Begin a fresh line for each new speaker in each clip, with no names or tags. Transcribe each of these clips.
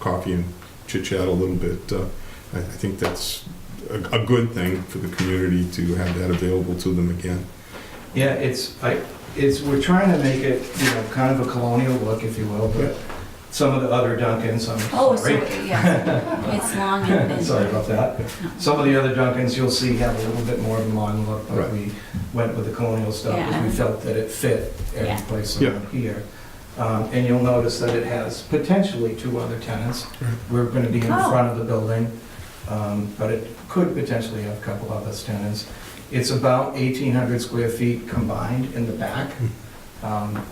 coffee and chit chat a little bit. Uh, I, I think that's a, a good thing for the community to have that available to them again.
Yeah, it's, I, it's, we're trying to make it, you know, kind of a colonial look, if you will, but some of the other Dunkins, I'm
Oh, so,
sorry.
yeah, it's long and thin.
Sorry about that. Some of the other Dunkins you'll see have a little bit more of a modern look, but
Right.
we went with the colonial stuff because we
Yeah.
felt that it fit
Yeah.
every place
Yeah.
around here. Um, And you'll notice that it has potentially two other tenants.
Right.
We're going to be in
Oh.
front of the building, um, but it could potentially have a couple other tenants. It's about 1,800 square feet combined in the back.
Hmm.
Um,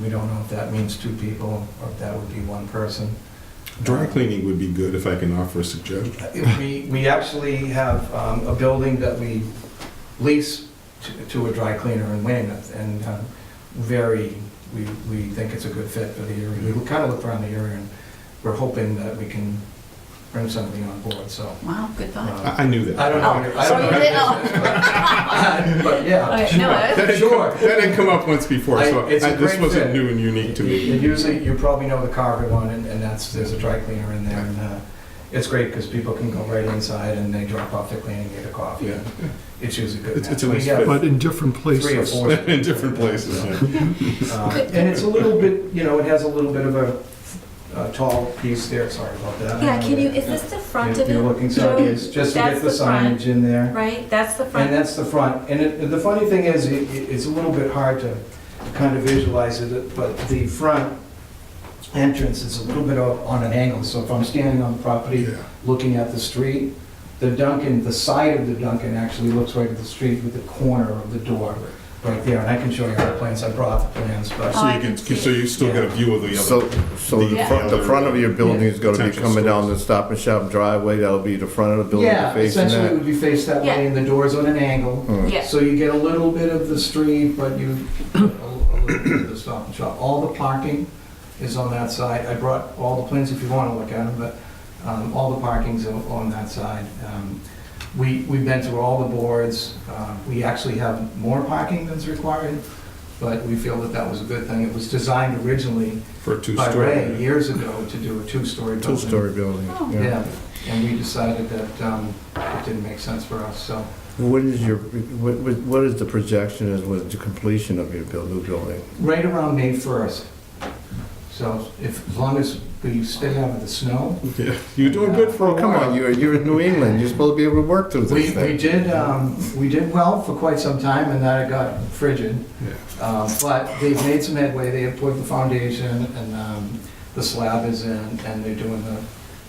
We don't know if that means two people or if that would be one person. Uh,
Dry cleaning would be good if I can offer a suggestion.
We, we actually have um, a building that we lease to- to a dry cleaner in Weymouth, and um, very, we, we think it's a good fit for the area. We kind of looked around the area, and we're hoping that we can bring somebody on board, so.
Wow, good thought.
uh,
I, I knew that.
I don't know.
Oh,
I
so
don't know
you did- oh.
business, but- But yeah,
Okay,
sure.
no, it-
That had come-
Sure.
That had come up once before, so
I- it's a
I- this
great
wasn't
fit.
new and unique to me.
You- you Usually, you probably know the Carver one, and and that's, there's a dry cleaner in there, and uh, it's great because people can go right inside and they drop off their cleaning, get a coffee,
Yeah,
and it's usually a good
It's-
match.
it's a
We
nice
have,
fit.
But in different
Three or
places.
four.
in different places, yeah.
um, And it's a little bit, you know, it has a little bit of a uh, tall piece there, sorry about that.
Yeah, can you, is this the front
Uh, If
of
you're
it?
looking sideways, just to
that's
get the
the front.
signage in there.
Right, that's the
And
front.
that's the front. And it- the funny thing is, it- it- it's a little bit hard to kind of visualize it, but the front entrance is a little bit o- on an angle. So if I'm standing on the property,
Yeah.
looking at the street, the Duncan, the side of the Duncan actually looks right at the street with the corner of the door right there. And I can show you the plans. I brought the plans, but
Oh,
So
I
you can,
can see
so
it.
you still get a view of the
So,
other.
so the
Yeah.
front, the front of your building is gonna be
Potential
coming down the
stores.
Stop and Shop driveway, that'll be the front of the building
yeah,
facing
essentially it
that?
would be faced that way and the door's on an angle.
Hmm.
Yeah,
So you get a little bit of the street, but you, a little bit of the stop and shop. All the parking is on that side. I brought all the plans if you want to look at them, but um, all the parking's on on that side. Um, We, we've been through all the boards. Uh, We actually have more parking than's required, but we feel that that was a good thing. It was designed originally
For a
by Ray
two-story.
years ago to do a two-story building.
Two-story building,
Oh.
yeah.
Yeah, and we decided that um, it didn't make sense for us, so.
What is your, what, what- what is the projection as with the completion of your build, new building?
right around May 1st. So if, as long as we stay out of the snow.
Yeah. You're doing good for a
Well, come on,
while.
you're, you're in New England, you're supposed to be able to work through
We,
this
we
thing.
did, um, we did well for quite some time, and then it got frigid.
Yeah.
Um, But they've made some headway, they have put the foundation, and um, the slab is in, and they're doing the,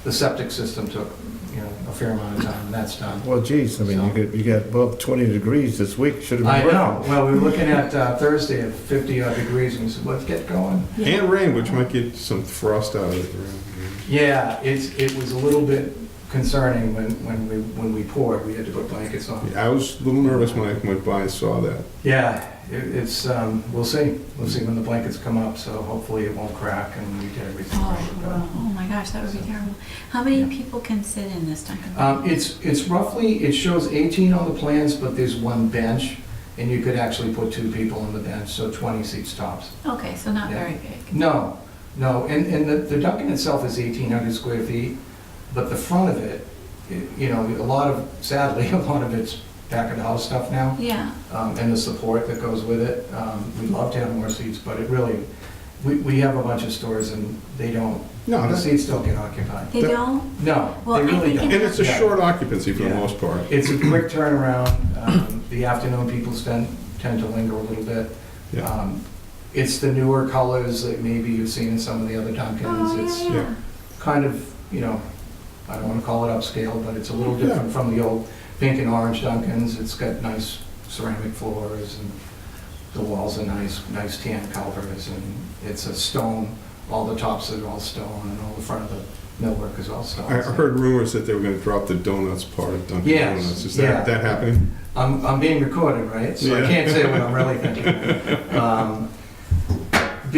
the septic system took, you know, a fair amount of time, and that's done.
Well, geez, I mean, you got, you got above twenty degrees this week, should have
I
been working.
know, well, we were looking at uh, Thursday at 50 odd degrees, and we said, let's get going.
yeah.
And rain, which might get some frost out of the ground.
Yeah, it's, it was a little bit concerning when, when we, when we poured, we had to put blankets on.
Yeah, I was a little nervous when I went by and saw that.
Yeah, it, it's, um, we'll see, we'll see when the blankets come up, so hopefully it won't crack and we get everything
Oh,
right.
wow. oh my gosh, that would be terrible. How many people can sit in this Dunkin'?
but- Um, it's, it's roughly, it shows eighteen on the plans, but there's one bench, and you could actually put two people on the bench, so twenty seats tops.
Okay, so not
yeah.
very big.
No, no, and, and the, the Dunkin' itself is eighteen hundred square feet, but the front of it, it- you know, a lot of, sadly, a lot of it's back of the house stuff now.
Yeah,
um, and the support that goes with it. Um, We'd love to have more seats, but it really, we, we have a bunch of stores and they don't,
No,
the
that's-
seats don't get occupied.
they
That-
don't?
No,
Well,
they
I
really
think
and
don't.
it's a
Yeah.
short occupancy for the
Yeah.
most part.
It's a quick turnaround. Um, The afternoon people tend, tend to linger a little bit.
Yeah.
Um, It's the newer colors that maybe you've seen in some of the other
Oh,
Dunkins. It's
yeah, yeah.
kind of, you know, I don't want to call it upscale, but it's a little
Yeah.
different from the old pink and orange Dunkins. It's got nice ceramic floors and the walls are nice, nice tan colors and it's a stone, all the tops are all stone and all the front of the millwork is all stone.
I I heard rumors that they were gonna drop the donuts part of Dunkin'
Yes,
Donuts. Is
yeah.
that, that happening?
I'm, I'm being recorded, right? So I
Yeah.
can't say what I'm really thinking. Um,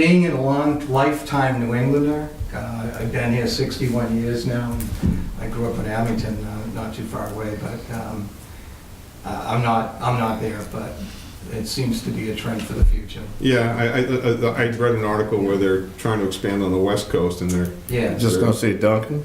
Being a long lifetime New Englander, uh, I've been here 61 years now. and I grew up in Abington, uh, not too far away, but um, uh, I'm not, I'm not there, but it seems to be a trend for the future.
Yeah, I, I- I, I read an article where they're trying to expand on the west coast and they're
Yeah.
Just gonna say Duncan?